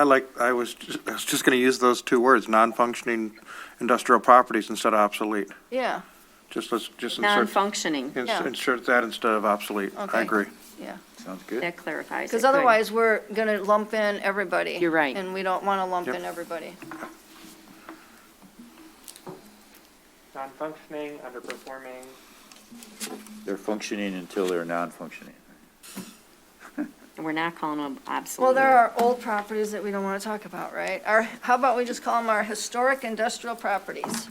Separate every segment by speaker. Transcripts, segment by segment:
Speaker 1: I like, I was, ju- I was just going to use those two words, non-functioning industrial properties instead of obsolete.
Speaker 2: Yeah,
Speaker 1: Just, let's, just insert,
Speaker 3: Non-functioning,
Speaker 1: ins-
Speaker 2: yeah.
Speaker 1: insert that instead of obsolete.
Speaker 2: Okay.
Speaker 1: I agree.
Speaker 2: yeah.
Speaker 4: Sounds good.
Speaker 3: that clarifies it.
Speaker 2: Because
Speaker 3: Good.
Speaker 2: otherwise, we're going to lump in everybody.
Speaker 3: You're right.
Speaker 2: And we don't want to lump
Speaker 1: Yep.
Speaker 2: in everybody.
Speaker 5: non-functioning, underperforming,
Speaker 4: They're functioning until they're non-functioning.
Speaker 3: And we're not calling them obsolete.
Speaker 2: Well, there are old properties that we don't want to talk about, right? Our, how about we just call them our historic industrial properties?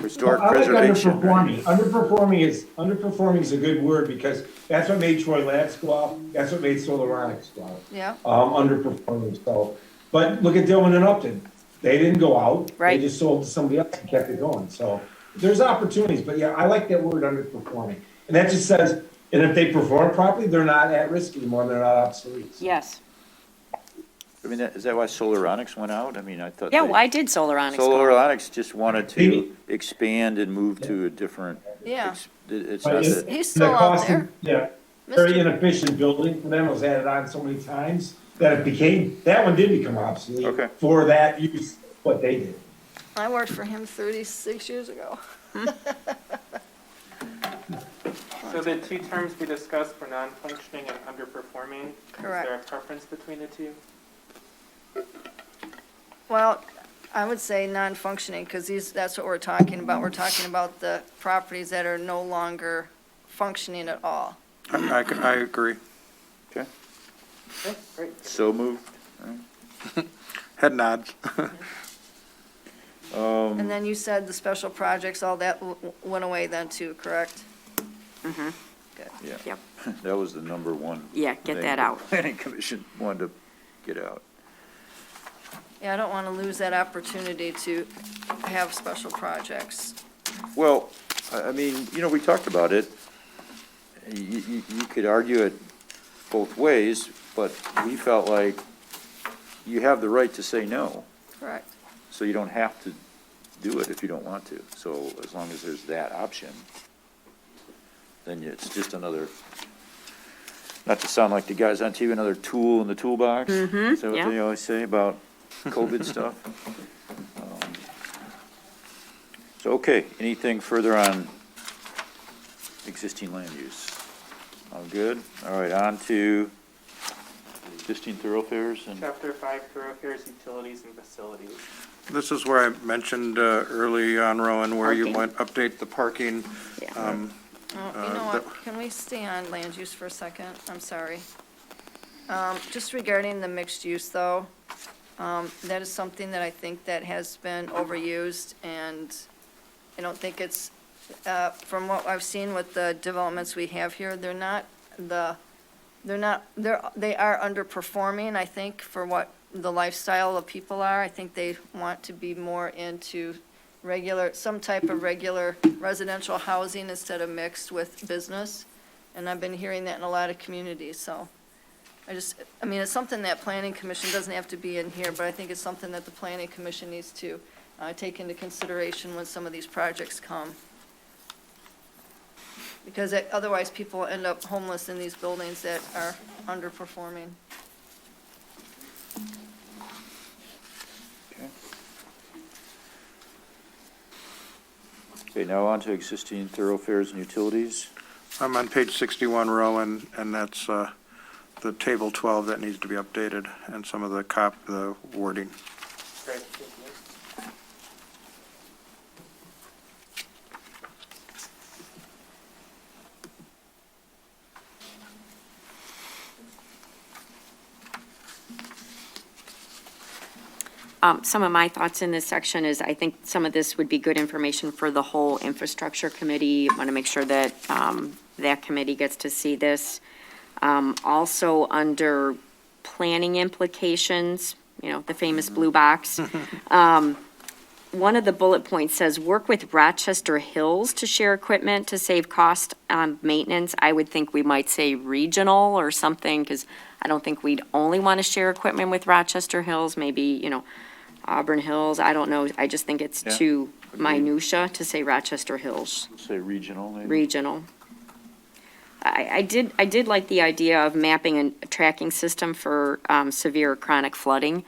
Speaker 4: Historic
Speaker 6: I like
Speaker 4: preservation.
Speaker 6: Underperforming, underperforming is, underperforming is a good word because that's what made Troy Labs go off, that's what made Solaronics go off.
Speaker 2: Yeah.
Speaker 6: Um, underperforming, so, but look at Dillman and Upton, they didn't go out.
Speaker 3: Right.
Speaker 6: They just sold to somebody else and kept it going, so there's opportunities, but yeah, I like that word underperforming. And that just says, and if they perform properly, they're not at risk anymore, they're not obsolete.
Speaker 3: Yes.
Speaker 4: I mean, that- is that why Solaronics went out? I mean, I thought.
Speaker 3: Yeah,
Speaker 4: they-
Speaker 3: why did Solaronics go?
Speaker 4: Solaronics just wanted to expand and move to a different.
Speaker 2: Yeah.
Speaker 4: ex- It's
Speaker 6: But
Speaker 4: not
Speaker 6: it's-
Speaker 2: He's
Speaker 4: that,
Speaker 6: And the
Speaker 2: still out
Speaker 6: cost of-
Speaker 2: there.
Speaker 6: Yeah,
Speaker 2: Mr.
Speaker 6: very inefficient building, for them it was added on so many times that it became, that one did become obsolete.
Speaker 4: Okay.
Speaker 6: For that use, what they did.
Speaker 2: I worked for him 36 years ago.
Speaker 5: so the two terms we discussed were non-functioning and underperforming. Is there a
Speaker 2: Correct.
Speaker 5: preference between the two?
Speaker 2: Well, I would say non-functioning, because these, that's what we're talking about. We're talking about the properties that are no longer functioning at all.
Speaker 1: I, I c- I agree.
Speaker 4: okay,
Speaker 5: Okay, great.
Speaker 4: so moved.
Speaker 1: Head nods.
Speaker 2: And then you said the special projects, all that w- w- went away then too, correct?
Speaker 3: Yep,
Speaker 4: That was the number one.
Speaker 3: yeah, get
Speaker 4: thing
Speaker 3: that
Speaker 4: the
Speaker 3: out.
Speaker 4: Planning Commission wanted to get out.
Speaker 2: Yeah, I don't want to lose that opportunity to have special projects.
Speaker 4: Well, I, I mean, you know, we talked about it. You, you, you could argue it both ways, but we felt like you have the right to say no,
Speaker 2: Correct.
Speaker 4: so you don't have to do it if you don't want to. So as long as there's that option, then you- it's just another, not to sound like the guys on TV, another tool in the toolbox. Is that
Speaker 3: yeah.
Speaker 4: what they always say about COVID stuff? Um, So, okay, anything further on existing land use? All good? All right, on to existing thoroughfares and.
Speaker 5: Chapter five, thoroughfares, utilities, and facilities.
Speaker 1: This is where I mentioned uh, early on, Rowan, where you
Speaker 3: Parking.
Speaker 1: went, update the parking.
Speaker 3: Yeah.
Speaker 1: um,
Speaker 2: Oh,
Speaker 1: Uh,
Speaker 2: You know
Speaker 1: that-
Speaker 2: what, can we stay on land use for a second? I'm sorry. Um, Just regarding the mixed use, though, um, that is something that I think that has been overused, and I don't think it's, uh, from what I've seen with the developments we have here, they're not the, they're not, they're, they are underperforming, I think, for what the lifestyle of people are. I think they want to be more into regular, some type of regular residential housing instead of mixed with business. And I've been hearing that in a lot of communities, so I just, I mean, it's something that planning commission doesn't have to be in here, but I think it's something that the planning commission needs to, uh, take into consideration when some of these projects come. Because it- otherwise, people end up homeless in these buildings that are underperforming.
Speaker 4: Okay. Okay, now on to existing thoroughfares and utilities.
Speaker 1: I'm on page 61, Rowan, and that's uh, the table 12 that needs to be updated and some of the cop, the wording.
Speaker 5: Great, thank you.
Speaker 3: Um, some of my thoughts in this section is I think some of this would be good information for the whole infrastructure committee. Want to make sure that, um, that committee gets to see this. Um, also under planning implications, you know, the famous blue box. Um, one of the bullet points says, work with Rochester Hills to share equipment to save cost on maintenance. I would think we might say regional or something, because I don't think we'd only want to share equipment with Rochester Hills, maybe, you know, Auburn Hills, I don't know. I just think it's
Speaker 4: Yeah.
Speaker 3: too minutia to say Rochester Hills
Speaker 4: Say regional, maybe?
Speaker 3: regional. Um, I, I did, I did like the idea of mapping and tracking system for um, severe chronic flooding.